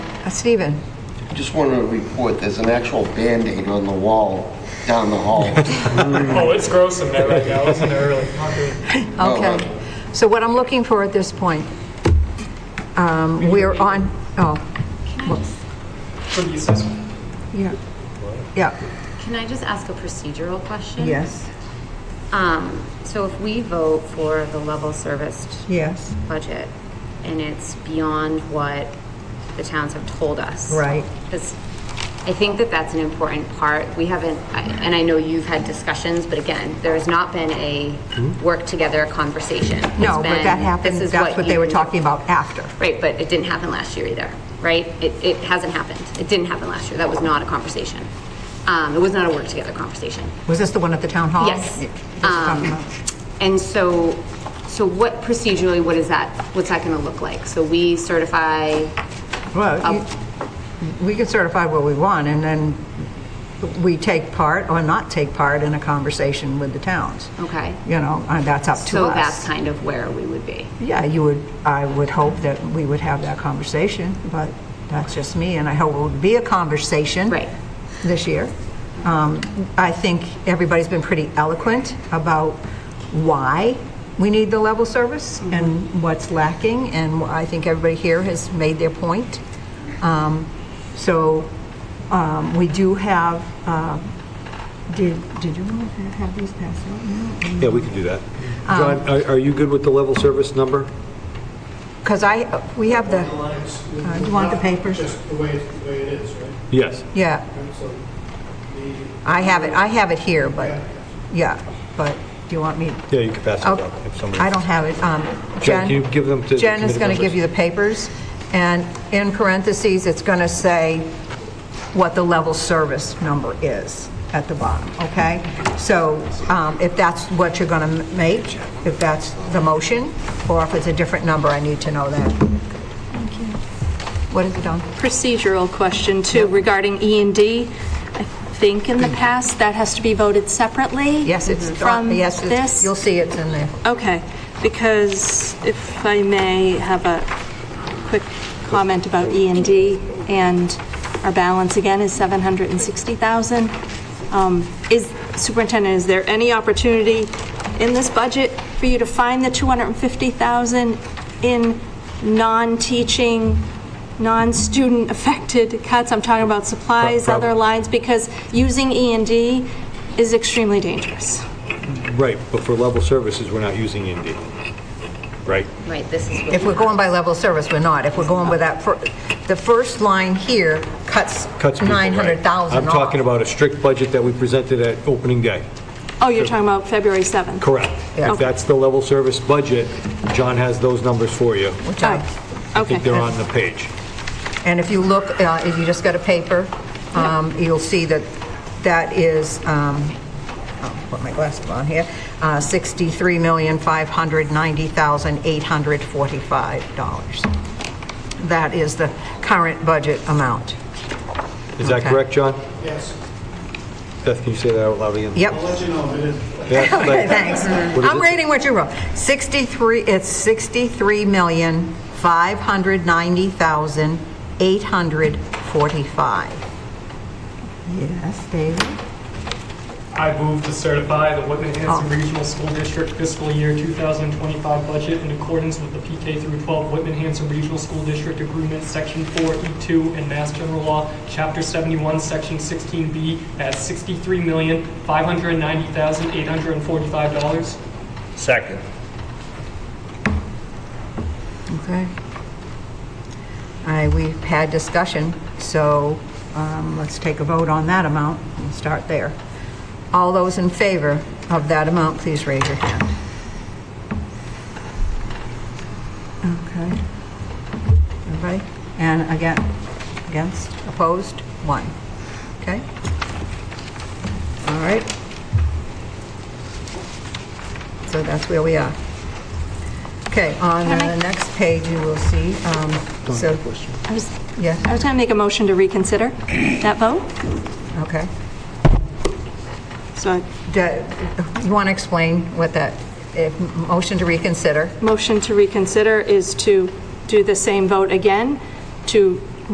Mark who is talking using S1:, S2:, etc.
S1: Uh, Stephen?
S2: Just wanted to report, there's an actual Band-Aid on the wall down the hall.
S3: Oh, it's gross in there right now, isn't it, really? Not good.
S2: Oh,
S1: Okay. So what I'm looking for at this point, um, we're on, oh,
S3: Could use this one.
S1: yeah, yeah,
S4: Can I just ask a procedural question?
S1: yes,
S4: Um, so if we vote for the level serviced
S1: yes,
S4: budget and it's beyond what the towns have told us.
S1: Right.
S4: Because I think that that's an important part. We haven't, I- and I know you've had discussions, but again, there has not been a work together conversation. It's
S1: Hmm? no, but
S4: been,
S1: that happened,
S4: "This is
S1: that's what they were
S4: you-
S1: talking about after.
S4: Right, but it didn't happen last year either, right? It, it hasn't happened. It didn't happen last year. That was not a conversation. Um, it was not a work together conversation.
S1: Was this the one at the town hall?
S4: Yes. Um,
S1: Yeah, just talking about-
S4: And so, so what procedurally, what is that, what's that gonna look like? So we certify, oh.
S1: Well, you- we can certify what we want, and then we take part or not take part in a conversation with the towns.
S4: okay?
S1: You know, and that's up to us.
S4: Oh. So that's kind of where we would be.
S1: Yeah, you would, I would hope that we would have that conversation, but that's just me, and I hope it would be a conversation.
S4: Right.
S1: This year. Um, I think everybody's been pretty eloquent about why we need the level service and what's lacking, and I think everybody here has made their point. Um, So um, we do have, uh, did, did you want to have these passed out now?
S5: Yeah, we can do that.
S1: Um,
S5: John, are are you good with the level service number?
S1: Because I, we have the, uh, you want the papers?
S6: Just the way, it- the way it is, right?
S5: Yes.
S1: Yeah,
S6: And so the,
S1: I have it, I have it here, but, yeah, but do you want me?
S5: Yeah, you can pass it
S1: Okay.
S5: out if somebody...
S1: I don't have it. Um,
S5: Jen, can you give them to the
S1: Jen is
S5: committee
S1: going to give
S5: members?
S1: you the papers, and in parentheses, it's going to say what the level service number is at the bottom, okay? So um, if that's what you're going to make, if that's the motion, or if it's a different number, I need to know that. What is it on?
S7: procedural question too regarding E and D. I think in the past, that has to be voted separately?
S1: Mm-hmm.
S7: Mm-hmm.
S1: Yes, it's,
S7: From
S1: yes, it's-
S7: this?
S1: you'll see it's in there.
S7: Okay, because if I may have a quick comment about E and D, and our balance again is 760,000. Um, Is, Superintendent, is there any opportunity in this budget for you to find the 250,000 in non-teaching, non-student affected cuts? I'm talking about supplies,
S5: Prob- prob-
S7: other lines, because using E and D is extremely dangerous.
S5: Right, but for level services, we're not using Indeed, right?
S4: Right, this is what.
S1: If we're going by level of service, we're not. If we're going with that, fir- the first line here cuts
S5: Cuts people, right.
S1: 900,000
S5: I'm
S1: off.
S5: talking about a strict budget that we presented at opening day.
S7: Oh, you're talking about February 7th?
S5: Correct.
S1: Yeah.
S5: If that's the level service budget, John has those numbers for you.
S1: Which I-
S5: I think they're
S7: Okay.
S5: on the page.
S1: And if you look, uh, if you just got a paper, um, you'll see that that is, um, I'll put my glasses on here, uh, $63,590,845. That is the current budget amount.
S5: Is that
S1: Okay.
S5: correct, John?
S6: yes,
S5: Beth, can you say that out loud again?
S1: Yep.
S6: I'll let you know if it is.
S5: Yeah, like-
S1: Okay, thanks.
S5: What is
S1: I'm
S5: it?
S1: reading what you wrote. 63, it's 63,590,845. Yes, David?
S3: I move to certify the Whitman-Hanson Regional School District fiscal year 2025 budget in accordance with the PK through 12 Whitman-Hanson Regional School District Agreement, Section 4, E2, and Mass General Law, Chapter 71, Section 16B, at $63,590,845.
S8: Second.
S1: Okay. All right, we've had discussion, so um, let's take a vote on that amount and start there. All those in favor of that amount, please raise your hand. Okay. Everybody? And again, against, opposed, one. Okay? All right. So that's where we are. Okay, on
S7: Can
S1: the
S7: I make-
S1: next page, you will see, um, so,
S7: I was,
S1: yes,
S7: I was going to make a motion to reconsider that vote,
S1: okay.
S7: so
S1: Do- You want to explain what that, if, motion to reconsider?
S7: motion to reconsider is to do the same vote again, to